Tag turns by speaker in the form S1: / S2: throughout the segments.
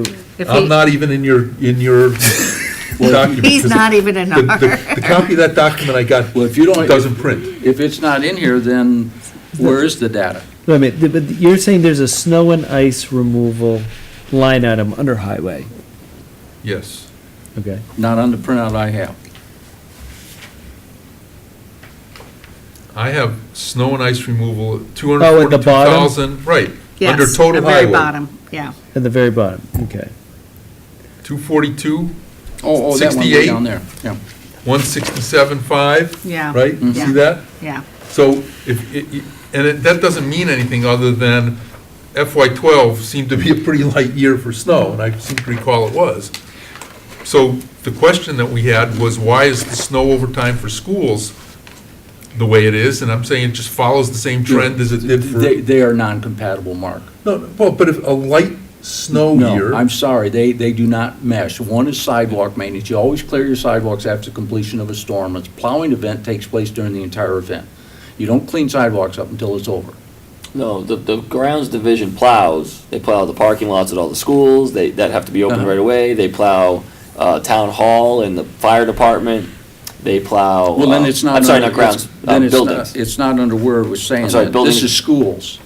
S1: If
S2: I'm
S1: he-
S2: not even in your, in your document.
S1: He's not even in
S2: The- The the
S1: our,
S2: copy of that document I got
S3: Well, if you don't-
S2: doesn't print.
S3: If it's not in here, then where is the data?
S4: Wait a minute, th- but you're saying there's a snow and ice removal line item under highway,
S2: Yes.
S4: okay?
S3: Not on the printout I have.
S2: I have snow and ice removal,
S4: Oh, at the bottom?
S2: 242,000, right, under
S1: yes, the
S2: total
S1: very
S2: highway.
S1: bottom, yeah.
S4: At the very bottom, okay.
S2: 242,
S3: Oh, oh, that one way
S2: 68?
S3: down there, yeah.
S2: 167.5.
S1: Yeah. Mm-hmm.
S2: Right? You
S1: Yeah.
S2: see that?
S1: Yeah,
S2: So if, it- it- and it- that doesn't mean anything other than FY12 seemed to be a pretty light year for snow, and I seem to recall it was. So the question that we had was, why is the snow overtime for schools the way it is? And I'm saying it just follows the same trend as it did for,
S3: They, they are non-compatible, Mark.
S2: no, no, well, but if a light
S5: Oh,
S2: snow year.
S3: No, I'm sorry, they, they do not mesh. One is sidewalk maintenance, you always clear your sidewalks after completion of a storm. A plowing event takes place during the entire event. You don't clean sidewalks up until it's over.
S5: No, the, the grounds division plows, they plow the parking lots at all the schools, they, that have to be open
S3: Uh-huh.
S5: right away, they plow, uh, town hall and the fire department, they plow.
S3: Well, then
S5: uh,
S3: it's not.
S5: I'm sorry,
S3: under-
S5: not grounds,
S3: it's-
S5: uh,
S3: then it's not-
S5: buildings.
S3: It's not under where it was saying
S5: I'm sorry,
S3: that. This
S5: buildings-
S3: is schools.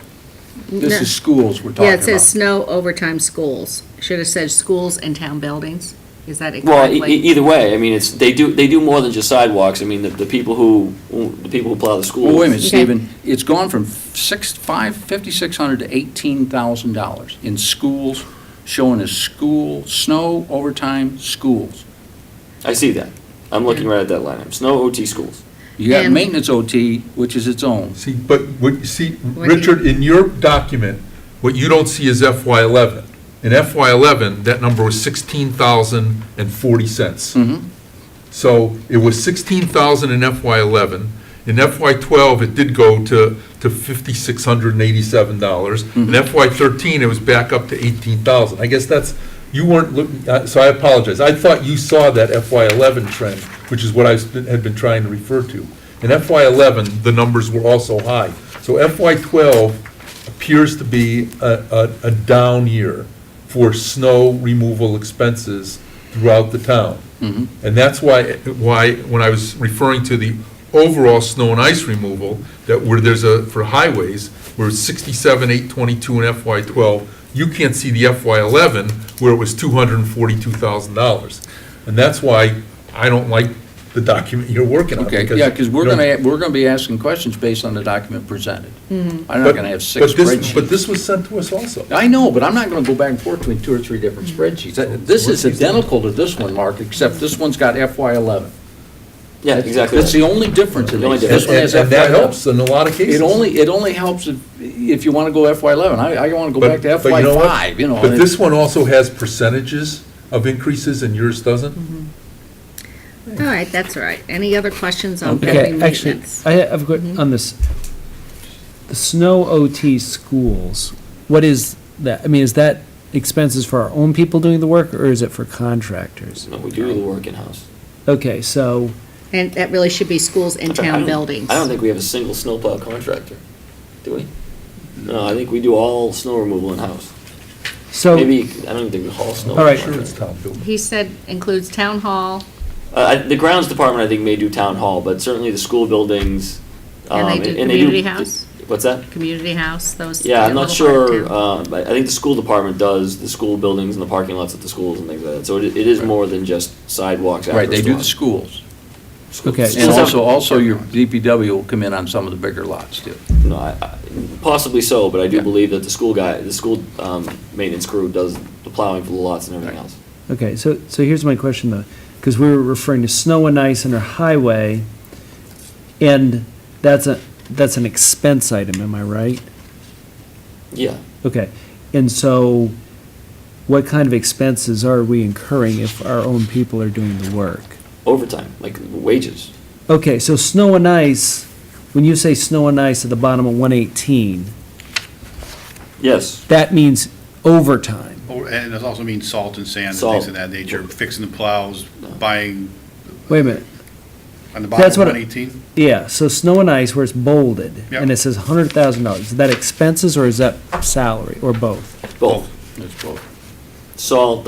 S3: This
S1: No.
S3: is schools we're talking
S1: yeah,
S3: about.
S1: it says snow overtime schools. Should have said schools and town buildings. Is that
S5: Well, e- e-
S1: correctly?
S5: either way, I mean, it's, they do, they do more than just sidewalks, I mean, the, the people who, the people who plow the schools.
S3: Well, wait a minute,
S1: Okay.
S3: Stephen, it's gone from six, five, fifty-six hundred to eighteen thousand dollars in schools, showing as school, snow, overtime, schools.
S5: I see that, I'm looking right at that line, item. snow OT schools.
S3: You got
S1: And-
S3: maintenance OT, which is its own.
S2: See, but what you see,
S1: do you-
S2: Richard, in your document, what you don't see is FY eleven. In FY eleven, that number was sixteen thousand and forty cents.
S1: Mm-hmm.
S2: So it was sixteen thousand in FY eleven. In FY twelve, it did go to, to fifty-six hundred and eighty-seven dollars.
S1: Mm-hmm.
S2: In FY thirteen, it was back up to eighteen thousand. I guess that's, you weren't looking, uh, so I apologize. I thought you saw that FY eleven trend, which is what I was- had been trying to refer to. In FY eleven, the numbers were also high. So FY twelve appears to be a, a, a down year for snow removal expenses throughout the town.
S3: Mm-hmm.
S2: And that's why, why, when I was referring to the overall snow and ice removal, that where there's a, for highways, where it's sixty-seven, eight twenty-two in FY twelve, you can't see the FY eleven where it was two hundred and forty-two thousand dollars. And that's why I don't like the document you're working on.
S3: Okay, yeah, because we're
S2: you know-
S3: gonna, we're gonna be asking questions based on the document presented.
S1: Mm-hmm.
S3: I'm not
S2: But-
S3: gonna have six
S2: but this- But
S3: spreadsheets.
S2: this was sent to us also.
S3: I know, but I'm not gonna go back and forth between two or three different
S1: Mm-hmm.
S3: spreadsheets. That- This is identical to this one, Mark, except this one's got FY eleven.
S5: Yeah, exactly.
S3: That's the only difference in
S5: The only
S3: these. This one
S2: And
S3: has
S2: and
S3: FY
S2: that
S3: 11.
S2: helps in a lot of cases.
S3: It only, it only helps if, if you want to go FY eleven. I, I want to go
S2: But-
S3: back to
S2: but
S3: FY
S2: know what?
S3: five, you know.
S2: But
S3: and
S2: this one also has percentages of increases and yours doesn't?
S1: All right, that's all right. Any other questions on
S4: Okay,
S1: building
S4: actually,
S1: maintenance?
S4: I have a question on this. The snow OT schools, what is that? I mean, is that expenses for our own people doing the work, or is it for contractors?
S5: No, we do the work in-house.
S4: Okay, so,
S1: And that really should be schools and
S5: I
S1: town
S5: don't-
S1: buildings.
S5: I don't think we have a single snowplow contractor, do we? No, I think we do all snow removal in-house.
S4: so,
S5: Maybe, I don't even think we haul snow.
S4: All right.
S2: Sure, it's town building.
S1: He said includes town hall,
S5: Uh, I- the grounds department, I think, may do town hall, but certainly the school buildings.
S1: And they
S5: um,
S1: do community house?
S5: What's that?
S1: community house, those.
S5: Yeah, I'm not
S1: little part of
S5: sure,
S1: town.
S5: uh, but I think the school department does the school buildings and the parking lots at the schools and things like that. So it, it is more than just sidewalks after.
S3: Right, they do
S5: storm.
S3: the schools.
S5: Schools-
S4: Okay.
S3: And
S5: schools have-
S3: also, also your DPW will come in on some of the bigger lots too.
S5: No, I, I, possibly so, but I do
S3: Yeah.
S5: believe that the school guy, the school, um, maintenance crew does the plowing for the lots and everything
S3: Right.
S5: else.
S4: okay, so, so here's my question though, because we were referring to snow and ice under highway, and that's a, that's an expense item, am I right?
S5: Yeah.
S4: Okay, and so what kind of expenses are we incurring if our own people are doing the work?
S5: overtime, like wages.
S4: Okay, so snow and ice, when you say snow and ice at the bottom of 118,
S5: Yes.
S4: that means overtime.
S6: Or- And it also means salt and sand and
S5: Salt.
S6: things of that nature, fixing the plows, buying
S4: Wait a minute,
S6: on the
S4: That's
S6: bottom
S4: what
S6: of
S4: I-
S6: 118.
S4: yeah, so snow and ice where it's bolded, and
S6: Yeah.
S4: it says $100,000, is that expenses or is that salary, or both?
S5: Both.
S3: That's both.
S5: salt,